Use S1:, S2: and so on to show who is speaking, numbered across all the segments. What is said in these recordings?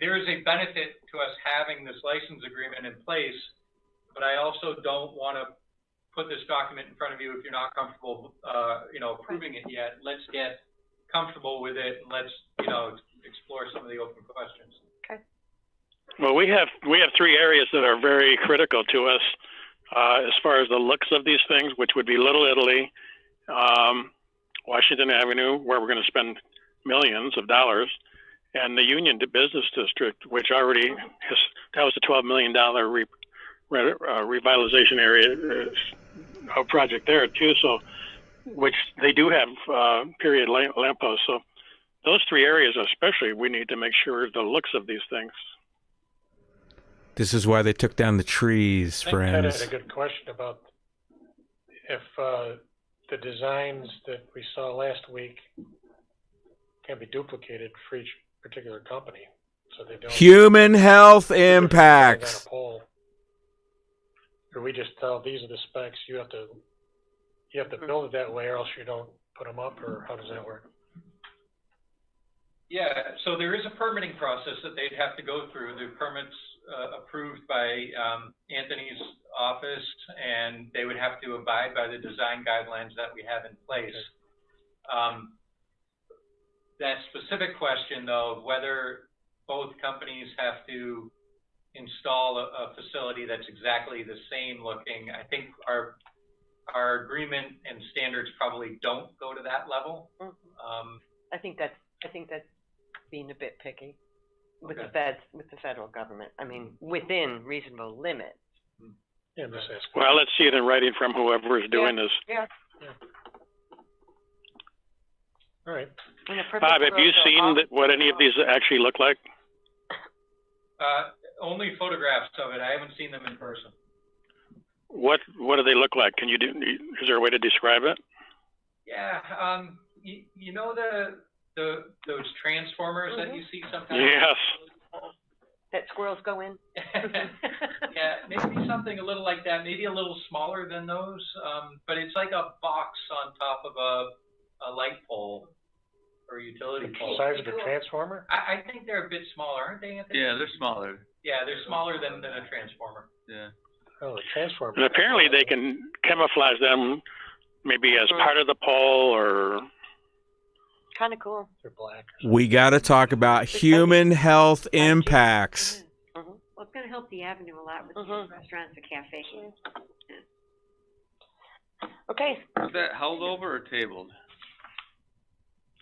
S1: there is a benefit to us having this license agreement in place, but I also don't want to put this document in front of you if you're not comfortable, uh, you know, approving it yet. Let's get comfortable with it and let's, you know, explore some of the open questions.
S2: Well, we have we have three areas that are very critical to us uh, as far as the looks of these things, which would be Little Italy, um, Washington Avenue, where we're going to spend millions of dollars, and the Union D- Business District, which already has, that was a twelve million dollar re, re, uh, revitalization area uh, project there too. So, which they do have uh, period lamp, lampposts. So, those three areas especially, we need to make sure the looks of these things.
S3: This is why they took down the trees,
S4: I think Ted had
S3: friends.
S4: a good question about if uh, the designs that we saw last week can be duplicated for each particular company, so they don't.
S5: Human health
S4: On
S5: impacts.
S4: a poll. Or we just tell, these are the specs, you have to, you have to build it that way, or else you don't put them up, or how does that work?
S1: Yeah, so there is a permitting process that they'd have to go through. The permits uh, approved by um, Anthony's office, and they would have to abide by the design guidelines that we have in place. Um, that specific question, though, of whether both companies have to install a, a facility that's exactly the same looking, I think our our agreement and standards probably don't go to that level.
S6: Mhm.
S1: Um,
S6: I think that's, I think that's being a bit picky with the
S1: Okay. Mm-hmm.
S6: feds, with the federal government. I mean, within reasonable limits.
S4: Yeah, I'm just asking.
S2: Well, let's see it in writing from whoever is doing this.
S6: Yeah.
S4: All right,
S6: In a perfect
S2: Bob, have you
S6: world, they'll all-
S2: seen that, what any of these actually look like?
S1: Uh, only photographs of it. I haven't seen them in person.
S2: What What do they look like? Can you do? Is there a way to describe it?
S1: Yeah, um, you, you know the the those transformers that you see sometimes.
S2: Yes.
S6: That squirrels go in?
S1: yeah, maybe something a little like that. Maybe a little smaller than those. Um, but it's like a box on top of a a light pole or utility
S4: the
S1: pole.
S4: size of the transformer?
S1: I, I think they're a bit smaller, aren't they, Anthony?
S7: Yeah, they're smaller.
S1: Yeah, they're smaller than, than a transformer.
S7: Yeah.
S4: Oh, the transformer.
S2: And apparently, they can camouflage them, maybe as part of the pole or
S6: Kinda cool.
S4: They're black.
S5: We got to talk about human health impacts.
S6: Mhm.
S8: Well, it's gonna help the avenue a lot with
S6: Mhm.
S8: restaurants and cafes.
S6: Okay,
S7: Is that held over or tabled?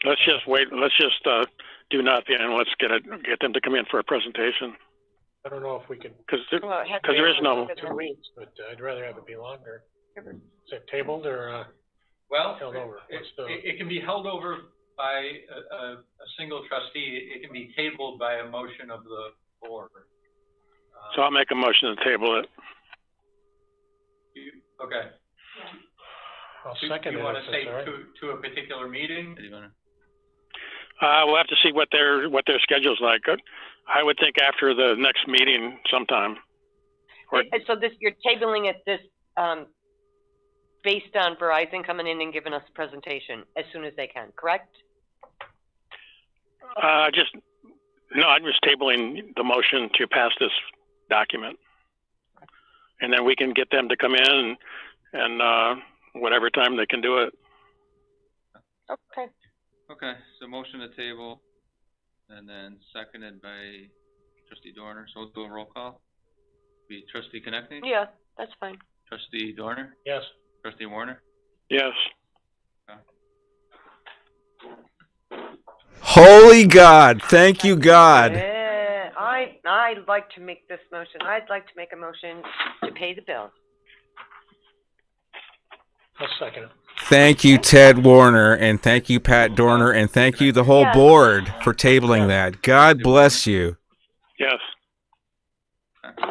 S2: let's just wait. Let's just uh, do nothing and let's get it, get them to come in for a presentation
S4: I don't know if we can,
S2: because
S6: well, it has to
S2: 'Cause
S6: be
S2: there is no-
S6: within the reach.
S4: but I'd rather have it be longer. Is it tabled or, uh,
S1: Well,
S4: Held over.
S1: It,
S4: What's the-
S1: it- it can be held over by a, a, a single trustee. It can be tabled by a motion of the board. Um,
S2: so I'll make a motion to table it.
S1: you- Okay.
S4: I'll
S1: Do-
S4: second
S1: Do you
S4: it if
S1: want to
S4: it's
S1: say
S4: all right.
S1: to, to a particular meeting?
S7: Do you wanna-
S2: Uh, we'll have to see what their what their schedule's like. I would think after the next meeting sometime. Or-
S6: And so this, you're tabling it this, um, based on Verizon coming in and giving us a presentation as soon as they can, correct?
S2: Uh, just, no, I'm just tabling the motion to pass this document. And then we can get them to come in and, uh, whatever time they can do it.
S6: Okay.
S7: Okay, so motion to table, and then seconded by trustee Dorner, so we'll do a roll call. Be trustee Connectney?
S6: Yeah, that's fine.
S7: Trustee Dorner?
S4: Yes,
S7: Trustee Warner?
S2: Yes.
S5: Holy God. Thank you, God.
S6: Yeah, Eh, I, I'd like to make this motion, I'd like to make a motion to pay the bill.
S4: I'll second it.
S5: Thank you, Ted Warner. And thank you, Pat Dorner. And thank you, the whole board, for tabling that. God bless you.
S2: Yes.
S7: Okay.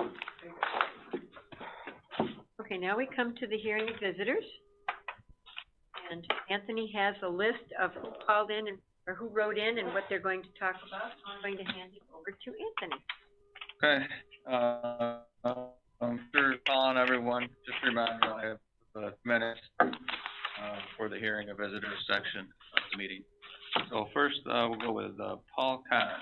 S8: Okay, now we come to the hearing of visitors. And Anthony has a list of who called in and, or who wrote in and what they're going to talk about. I'm going to hand it over to Anthony.
S7: Okay, uh, I'm sure calling everyone, just a reminder, I have uh minutes, uh, for the hearing of visitors section of the meeting. So first, uh, we'll go with, uh, Paul Connor.